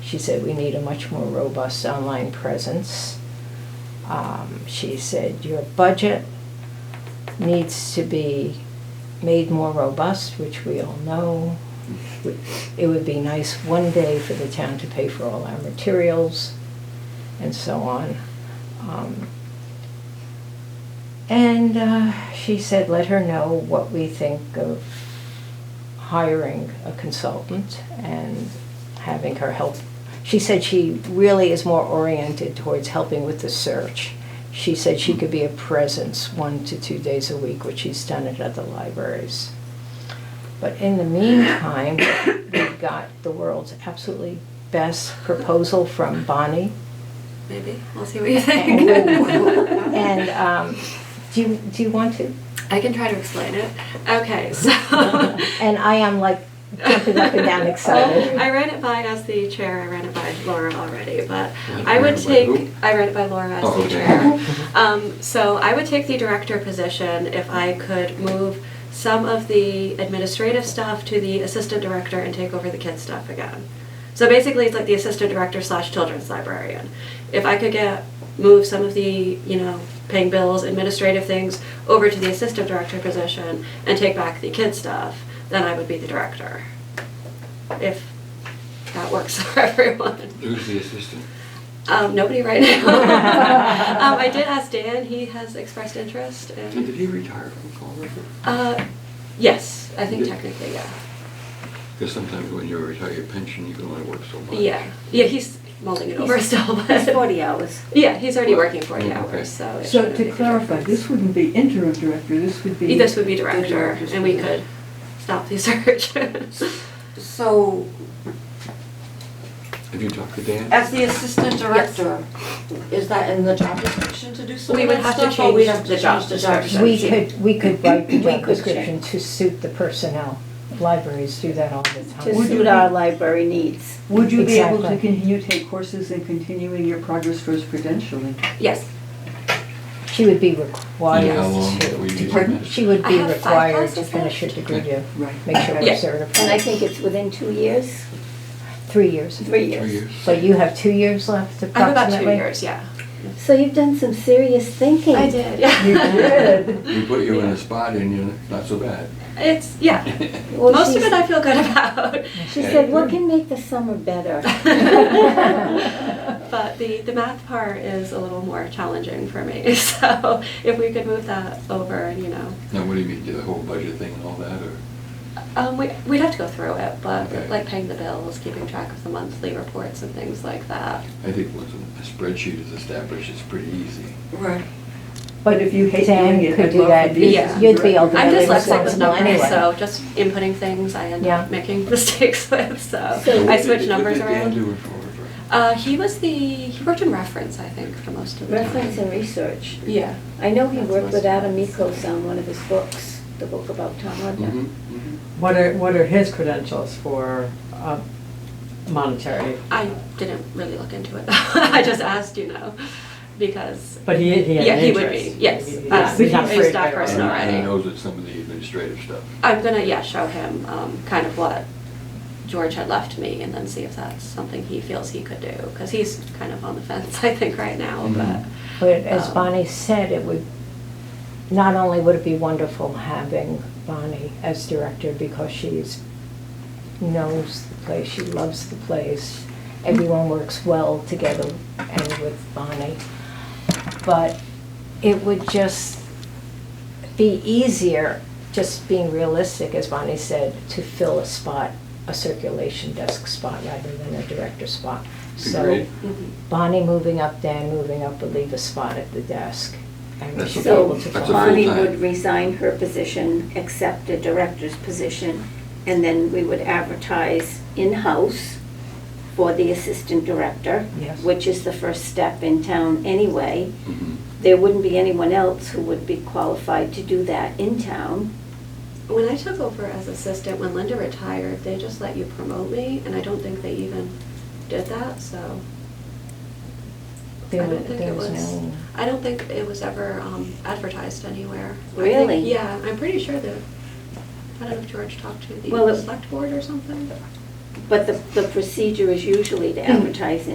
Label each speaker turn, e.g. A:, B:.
A: She said we need a much more robust online presence. Um, she said your budget needs to be made more robust, which we all know. It would be nice one day for the town to pay for all our materials and so on. Um, and uh, she said, let her know what we think of hiring a consultant and having her help. She said she really is more oriented towards helping with the search. She said she could be a presence one to two days a week, which she's done at other libraries. But in the meantime, we got the world's absolutely best proposal from Bonnie.
B: Maybe. We'll see what you think.
A: And um, do you, do you want to?
B: I can try to explain it. Okay, so.
A: And I am like jumping up and down excited.
B: Oh, I ran it by as the chair, I ran it by Laura already, but
C: You
B: I would
C: ran it by who?
B: take, I ran it by Laura as
C: Oh,
B: the
C: okay.
B: chair. Um, so I would take the director position if I could move some of the administrative stuff to the assistant director and take over the kids stuff again. So basically, it's like the assistant director slash children's librarian. If I could get, move some of the, you know, paying bills, administrative things over to the assistant director position and take back the kids stuff, then I would be the director. If that works for everyone.
C: Who's the assistant?
B: Um, nobody right now. um, I did ask Dan. He has expressed interest.
C: And did
B: And,
C: he retire from Fall River?
B: uh, yes, I think technically, yeah.
C: Because sometimes when you retire your pension, you can only work so much.
B: Yeah, yeah. He's mulling it over still, but
D: It's 40 hours.
B: yeah, he's already working forty
C: Okay.
B: hours, so. it
E: So
B: shouldn't
E: to
B: make a
E: clarify,
B: difference.
E: this wouldn't be interim director, this would be.
B: This would be
E: the
B: director,
E: director's
B: and we
E: position.
B: could stop the search.
D: So,
C: Have you talked to Dan?
D: as the assistant director, is that in the job description to do some
B: We
D: of
B: would
D: that
B: have to
D: stuff? or we'd
B: change
D: have
B: the
D: to
B: job
D: change the job
B: description.
D: description?
A: We could, we could write the
D: We
A: job
D: could
A: description to suit the personnel. Libraries do that all the
F: to
E: Would
A: time.
E: you
F: suit our
E: be-
F: library needs.
E: Would you be able to
A: Exactly.
E: continue to take courses and continuing your progress towards credentialing?
B: Yes,
A: She would be
C: And how
A: required
C: long were you
A: to,
C: doing that?
A: she would
B: I
A: be
B: have five
A: required to
B: classes
A: finish her
B: left.
A: degree to
E: Right.
A: make sure
B: Yeah.
A: I'm
F: And I
A: certified.
F: think it's within two years,
A: Three years.
F: three
C: Three
F: years.
C: years?
A: But you have two years left
B: I have about
A: approximately?
B: two years. Yeah,
F: So you've done some serious thinking.
B: I did. Yeah,
E: You did.
C: We put you in a spot and you're not so bad.
B: It's yeah.
F: Well,
B: Most of
F: she's-
B: it I feel good about.
F: She said, what can make the summer better?
B: But the, the math part is a little more challenging for me. So if we could move that over, you know,
C: Now, what do you mean, do the whole budget thing and all that, or?
B: um, we, we'd have to go through it, but
C: Okay.
B: like paying the bills, keeping track of the monthly reports and things like that.
C: I think once a spreadsheet is established, it's pretty easy.
D: Right.
E: But if you hate
A: Dan
E: doing it,
A: could
E: I'd
A: do
E: love
A: that.
E: to be
B: Yeah.
E: assistant
A: You'd be
E: director.
A: Yeah,
B: I'm
A: they were
B: dyslexic with
A: flexible
B: numbers,
A: anyway.
B: so just inputting things I end
A: Yeah.
B: up making mistakes with. So
F: So
B: Uh, I
C: what did-
B: switch numbers
C: What did Dan
B: around.
C: do in Fall River?
B: Uh, he was the he worked in reference, I think, for most of the
F: Reference
B: time.
F: and research.
B: Yeah.
F: I know he worked with Adam Mikos on one of his books, the book about Tom
C: Mhm,
F: Rudnick.
C: mhm.
G: What are, what are his credentials for uh, monetary?
B: I didn't really look into it. I just asked, you know, because
G: But he, he had
B: Yeah,
G: an
B: he would
G: interest.
B: be, yes.
G: He- he-
B: Uh,
G: he's not
B: he's
G: afraid
B: staff
G: by
B: person
C: And-
G: all.
B: already.
C: And he knows that some of the administrative stuff.
B: I'm gonna, yeah, show him um, kind of what George had left me and then see if that's something he feels he could do. Because he's kind of on the fence, I think, right now,
C: Mhm.
B: but.
A: Mm-hmm. But as
B: um,
A: Bonnie said, it would, not only would it be wonderful having Bonnie as director because she's, knows the place, she loves the place, everyone works well together and with Bonnie, but it would just be easier, just being realistic, as Bonnie said, to fill a spot, a circulation desk spot rather than a director spot. So
C: Agreed.
B: mhm.
A: Bonnie moving up, Dan moving up would leave a spot at the desk. And we
C: That's
A: should be
C: a-
A: able to
C: that's
F: So
C: a
A: fill it.
F: Bonnie
C: full-time.
F: would resign her position, accept a director's position, and then we would advertise in-house for the assistant director,
A: Yes.
F: which is the first step in town anyway.
C: Mhm.
F: There wouldn't be anyone else who would be qualified to do that in town.
B: When I took over as assistant, when Linda retired, they just let you promote me, and I don't think they even did that, so.
A: There
B: I
A: wa-
B: don't think
A: there
B: it
A: was no-
B: I don't think it was ever um, advertised anywhere. I think-
F: Really?
B: Yeah, I'm pretty sure that, I don't know if George talked to the
F: Well, it-
B: select board or something.
F: But the, the procedure is usually to advertise